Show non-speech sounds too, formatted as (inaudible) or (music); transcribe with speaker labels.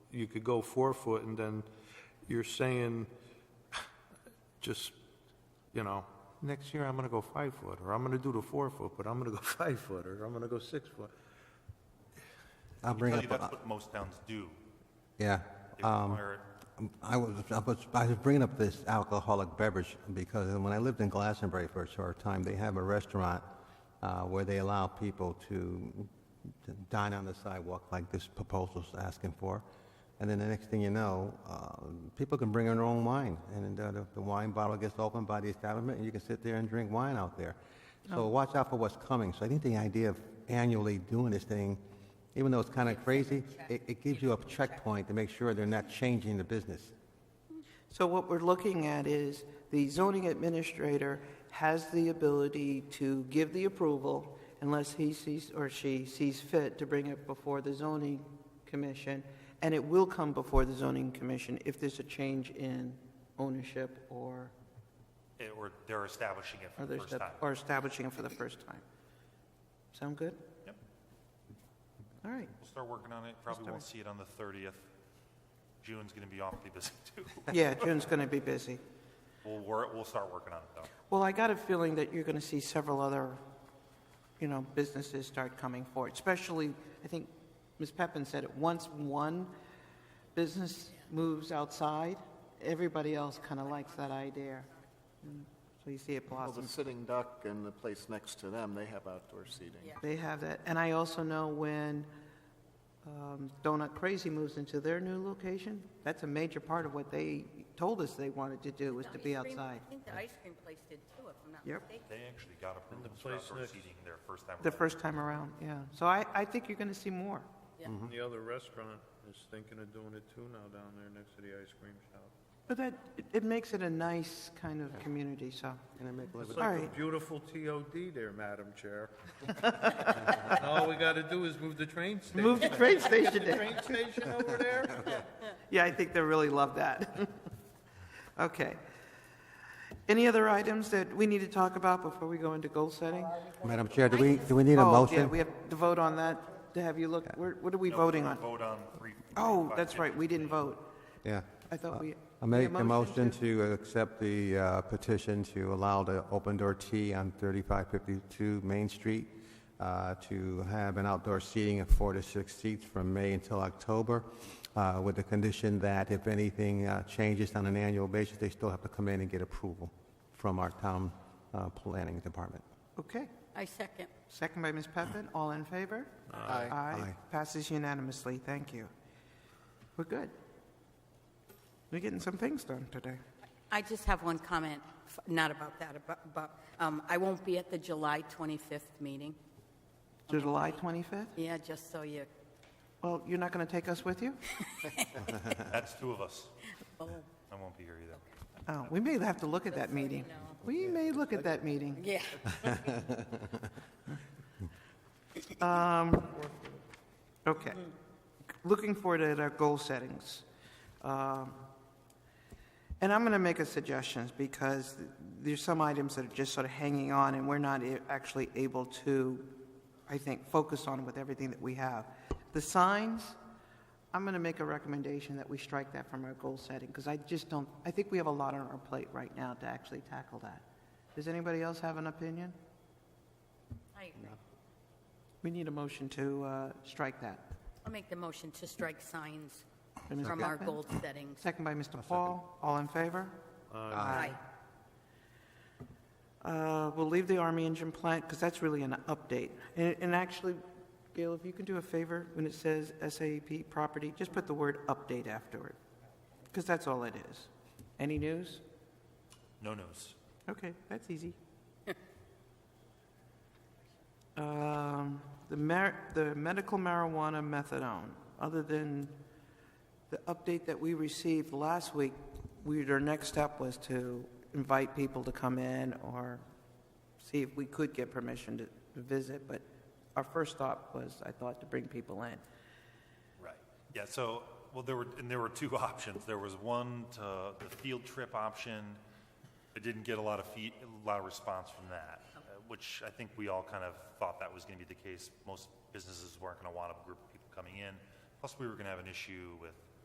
Speaker 1: you could go four foot, and then you're saying, just, you know, next year I'm gonna go five foot, or I'm gonna do the four foot, but I'm gonna go (laughs) five foot, or I'm gonna go six foot.
Speaker 2: I'll
Speaker 3: Tell
Speaker 2: bring
Speaker 3: you
Speaker 2: up,
Speaker 3: that's
Speaker 2: uh,
Speaker 3: what most towns do.
Speaker 2: yeah.
Speaker 3: They
Speaker 2: Um,
Speaker 3: require it.
Speaker 2: I was, I was, I was bringing up this alcoholic beverage because when I lived in Glastonbury for a short time, they have a restaurant uh, where they allow people to to dine on the sidewalk like this proposal's asking for. And then the next thing you know, uh, people can bring in their own wine, and uh, the- the wine bottle gets opened by the establishment, and you can sit there and drink wine out there. So watch out for what's coming. So I think the idea of annually doing this thing, even though it's kind of crazy, it, it gives you a checkpoint to make sure they're not changing the business.
Speaker 4: So what we're looking at is the zoning administrator has the ability to give the approval unless he sees or she sees fit to bring it before the zoning commission. And it will come before the zoning commission if there's a change in ownership or
Speaker 3: It- eh, Or they're establishing it for the
Speaker 4: other
Speaker 3: first time.
Speaker 4: step, or establishing it for the first time. Sound good?
Speaker 3: Yep.
Speaker 4: All right.
Speaker 3: We'll start working on it. Probably won't see it on the 30th. June's going to be awfully busy (laughs) too.
Speaker 4: Yeah, June's going to be busy.
Speaker 3: We'll, wor- we'll start working on it though.
Speaker 4: Well, I got a feeling that you're going to see several other, you know, businesses start coming forward, especially, I think Ms. Peppin said it, once one business moves outside, everybody else kind of likes that idea. Mm, So you see it
Speaker 5: Well, the
Speaker 4: blossom.
Speaker 5: Sitting Duck and the place next to them, they have outdoor seating.
Speaker 4: They have that. And I also know when um, Donut Crazy moves into their new location, that's a major part of what they told us they wanted to do, was
Speaker 6: The
Speaker 4: to be
Speaker 6: ice cream-
Speaker 4: outside.
Speaker 6: I think the ice cream place did too, if I'm not
Speaker 4: Yep.
Speaker 6: mistaken.
Speaker 3: They actually got approvals for outdoor seating their first time.
Speaker 4: The
Speaker 3: around.
Speaker 4: first time around, yeah. So I, I think you're going to see more.
Speaker 1: The other restaurant is thinking of doing it too now down there next to the ice cream shop.
Speaker 4: But that, it- it makes it a nice kind of community, so.
Speaker 2: Can I make a little
Speaker 1: It's
Speaker 2: bit?
Speaker 4: All
Speaker 1: like a
Speaker 4: right.
Speaker 1: beautiful TOD there, Madam Chair. (laughs) All we gotta do is move the train station.
Speaker 4: (laughs) Move the train station in.
Speaker 1: Train station over there?
Speaker 4: Yeah, I think they really love that. (laughs) Okay. Any other items that we need to talk about before we go into goal setting?
Speaker 2: Madam Chair, do we, do we need a
Speaker 4: Oh,
Speaker 2: motion?
Speaker 4: yeah, we have to vote on that, to have you look, where- what are we voting on?
Speaker 3: Vote on three.
Speaker 4: Oh,
Speaker 3: five,
Speaker 4: that's right, we didn't vote.
Speaker 2: Yeah.
Speaker 4: I thought we.
Speaker 2: I
Speaker 4: we
Speaker 2: make a
Speaker 4: motioned
Speaker 2: motion
Speaker 4: to-
Speaker 2: to accept the uh, petition to allow the open door tea on 3552 Main Street uh, to have an outdoor seating of four to six seats from May until October, uh, with the condition that if anything uh, changes on an annual basis, they still have to come in and get approval from our town uh, planning department.
Speaker 4: Okay,
Speaker 6: I second.
Speaker 4: second by Ms. Peppin, all in favor?
Speaker 5: Aye.
Speaker 4: Aye,
Speaker 2: Aye.
Speaker 4: passes unanimously, thank you. We're good. We're getting some things done today.
Speaker 6: I just have one comment, f- not about that, but, but um, I won't be at the July 25th meeting.
Speaker 4: July 25th?
Speaker 6: Yeah, just so you,
Speaker 4: Well, you're not going to take us with you?
Speaker 3: That's two of
Speaker 4: (laughs)
Speaker 3: us.
Speaker 6: oh,
Speaker 3: I won't be here either.
Speaker 4: Oh, we may have to look at that meeting. We may look at that meeting.
Speaker 6: yeah.
Speaker 4: Okay. Looking forward at our goal settings. Um, And I'm going to make a suggestions because there's some items that are just sort of hanging on and we're not a- actually able to, I think, focus on with everything that we have. The signs, I'm going to make a recommendation that we strike that from our goal setting because I just don't, I think we have a lot on our plate right now to actually tackle that. Does anybody else have an opinion?
Speaker 6: I agree.
Speaker 4: We need a motion to uh, strike that.
Speaker 6: I'll make the motion to strike signs
Speaker 4: By Ms.
Speaker 6: from our
Speaker 4: Beckman?
Speaker 6: goal settings.
Speaker 4: Second by Mr. Paul. All in favor?
Speaker 6: Aye.
Speaker 4: Uh, We'll leave the Army engine plant, because that's really an update. And and actually, Gail, if you can do a favor, when it says SAEP property, just put the word "update" after it, because that's all it is. Any news?
Speaker 3: No news.
Speaker 4: Okay, that's easy. Um, The mar, the medical marijuana methadone, other than the update that we received last week, we, our next step was to invite people to come in or see if we could get permission to visit, but our first thought was, I thought, to bring people in.
Speaker 3: Right. Yeah, so, well, there were, and there were two (laughs) options. There was one to the field trip option. I didn't get a lot of feed, a lot of response from that, uh, which I think we all kind of thought that was going to be the case. Most businesses weren't going to want a group of people coming in. Plus, we were going to have an issue with